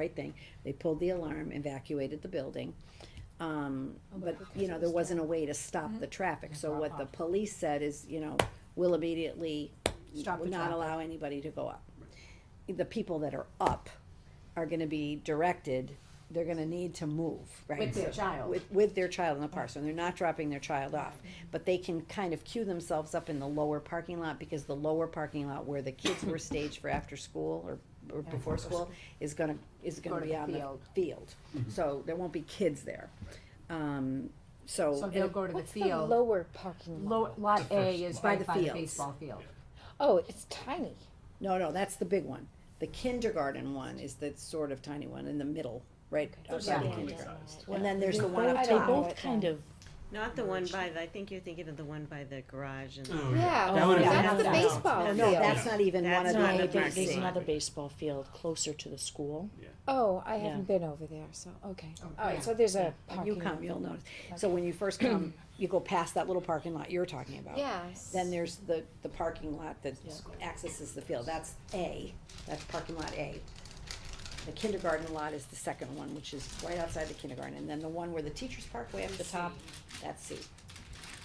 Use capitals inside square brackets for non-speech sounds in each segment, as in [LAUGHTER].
right thing. They pulled the alarm, evacuated the building. Um, Oh, but, you know, there wasn't a way to stop Mm-hmm. the traffic, so what the police said is, you know, we'll immediately Stop the not traffic. allow anybody to go up. The people that are up are gonna be directed, they're gonna need to move, right? With their child. With, with their child in the car, so they're not dropping their child off, but they can kind of queue themselves up in the lower parking lot, because the lower parking lot where the kids were staged for after school or, or before school is gonna, is Go gonna to be the on the field. field, so there won't be kids there. Um, so. So they'll go to the What's the field. lower parking lot? Lo- Lot A is By right the by the fields. baseball field. Oh, it's tiny. No, no, that's the big one. The kindergarten one is the sort of tiny one in the middle, right? outside the Yeah. kindergarten. Yeah. And then there's the one up They top. both kind of. Not the one by, the I think you're thinking of the one by the garage Uh, and. the- Yeah, Oh, That one is- that's the No, no, baseball No, field. no, that's not even one of That's the not No, the there- back there's seat. another baseball field closer to the school. Oh, I haven't been over there, so okay. All right, so there's a When parking. you come, you'll notice. So when you first come, you go past that little parking lot you're talking about. Yes. Then there's the, the parking lot that accesses the field. That's A, that's parking lot A. The kindergarten lot is the second one, which is right outside the kindergarten. And then the one where the teachers park way up the top, that's C.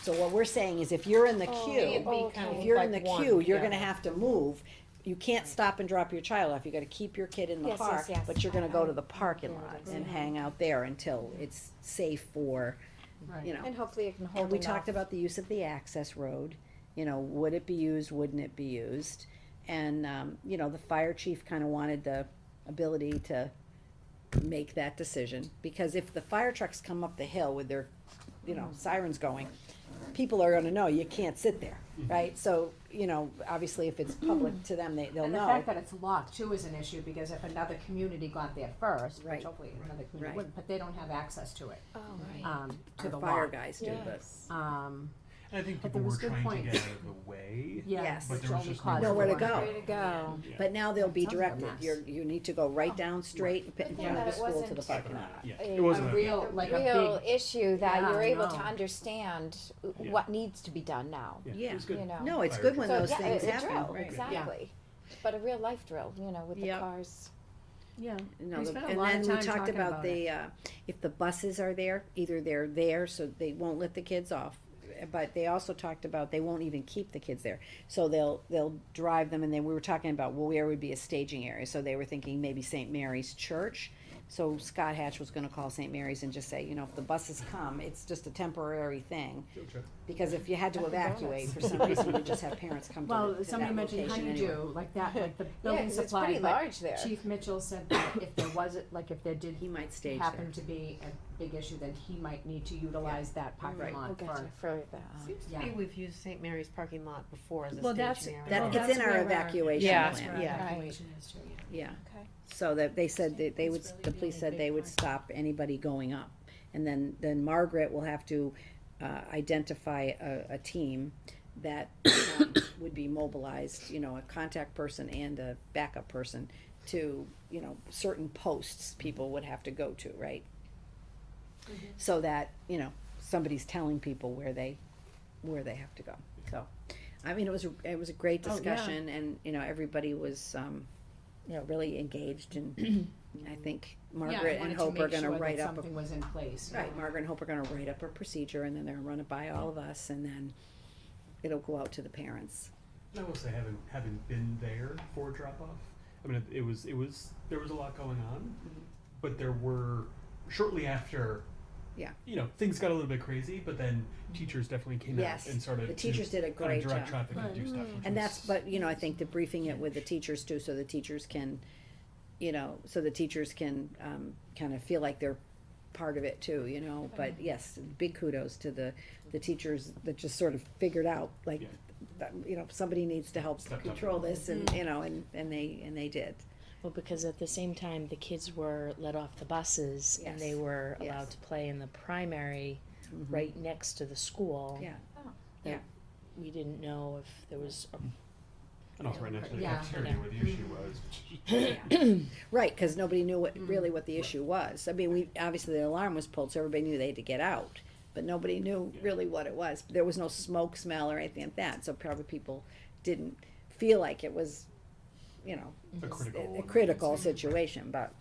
So what we're saying is if you're in the Oh, queue, if you're in the queue, you're gonna have to move. You can't stop and drop your child off. You gotta keep your kid in the Yes, car, yes, yes. but you're gonna go to the parking lot and hang out there until it's safe for, you know. And hopefully it can hold And we enough. talked about the use of the access road, you know, would it be used, wouldn't it be used? And, um, you know, the fire chief kinda wanted the ability to make that decision, because if the fire trucks come up the hill with their, you know, sirens going, people are gonna know, you can't sit there, right? So, you know, obviously if it's public to them, they, they'll And the know. fact that it's locked too is an issue, because if another community got there first, Right. which hopefully another Right. community wouldn't, but they don't have access to it, Oh, right. um, to Our the fire lot. guys do, but. Um, And I think But people there was were good trying point. to get out of the way. yeah, Yes. But which there was only just caused nowhere to one. go. Way to go. Yeah. But now they'll be Sounds like a directed, mess. you're, you need to go Oh. right down straight in front of the that it school to the wasn't- parking lot. Yeah, A- it A wasn't. a- real, A like real a issue that Yeah, you're I able know. to understand what needs to be done now, Yeah, it was you good. know? No, it's Fire good when Oh. So, those yeah, things it's a happen. drill, right. exactly. But a real life drill, you know, with the Yep. cars. big, yeah, No, We the- spent a and lot of then we time talked talking about about the, uh, if the buses are there, either they're there, so they won't let the kids off. But they also talked about they won't even keep the kids there, so they'll, they'll drive them, and then we were talking about well, where would be a staging area, so they were thinking maybe St. Mary's Church. So Scott Hatch was gonna call St. Mary's and just say, you know, if the buses come, it's just a temporary thing. Because if you had to evacuate for some reason, you'd [LAUGHS] just have parents come to the- to Well, that somebody mentioned location anyway. honeydew, like that, [LAUGHS] like the Yeah, building 'cause it's supply, pretty but large there. Chief Mitchell said that if there was, like if there did He might stage there. happen to be a big issue, then he might need to utilize that Right. parking Oh, lot gotcha, for. for uh, the, um, Seems to Yeah. me we've used St. Mary's parking lot before as Well, a that's- staging area. That, Well, it's in our where evacuation Yeah, plan. yeah. Evacuation is too, yeah. Yeah, okay. so that, they said that they would, the police said they would stop anybody going up. And then, then Margaret will have to, uh, identify a, a team that, um, would be mobilized, you know, a contact person and a backup person to, you know, certain posts people would have to go to, right? So that, you know, somebody's telling people where they, where they have to go, so. I mean, it was, a- it was a great Oh, yeah. discussion and, you know, everybody was, um, you know, really engaged [CLEARS THROAT] and I think Margaret and Hope are gonna write up, a- Something was in place. you right, know. Margaret and Hope are gonna write up a procedure and then they're gonna run it by all of us and then it'll go out to the parents. I will say, having having been there for drop off, I mean, it, it was it was there was a lot going on, but there were shortly after. Yeah. You know, things got a little bit crazy, but then teachers definitely came Yes, out and started. the teachers to did a kinda great job. direct traffic and do stuff. which And that's, was- but, you know, I think debriefing it with the teachers too, so the teachers can, you know, so the teachers can, um, kind of feel like they're part of it too, you know, but yes, big kudos to the, the teachers that just sort of figured out, like, Yeah. that, you know, somebody needs to help Stepped up. control this and, you know, and, and they, and they did. Well, because at the same time, the kids were let off the buses and they Yes. were Yes. Mm-hmm. allowed to play in the primary right next to the school. Yeah. Oh. That Yeah. We didn't know if there was a And also right next to the Yeah. cafeteria where the issue was. Right, because nobody knew what, Mm-hmm. really what the issue was. I mean, we, obviously the alarm was pulled, so everybody knew they had to get out, but nobody knew Yeah. really what it was. There was no smoke smell or anything like that, so probably people didn't feel like it was, you know, A critical. a- a emergency. critical situation, but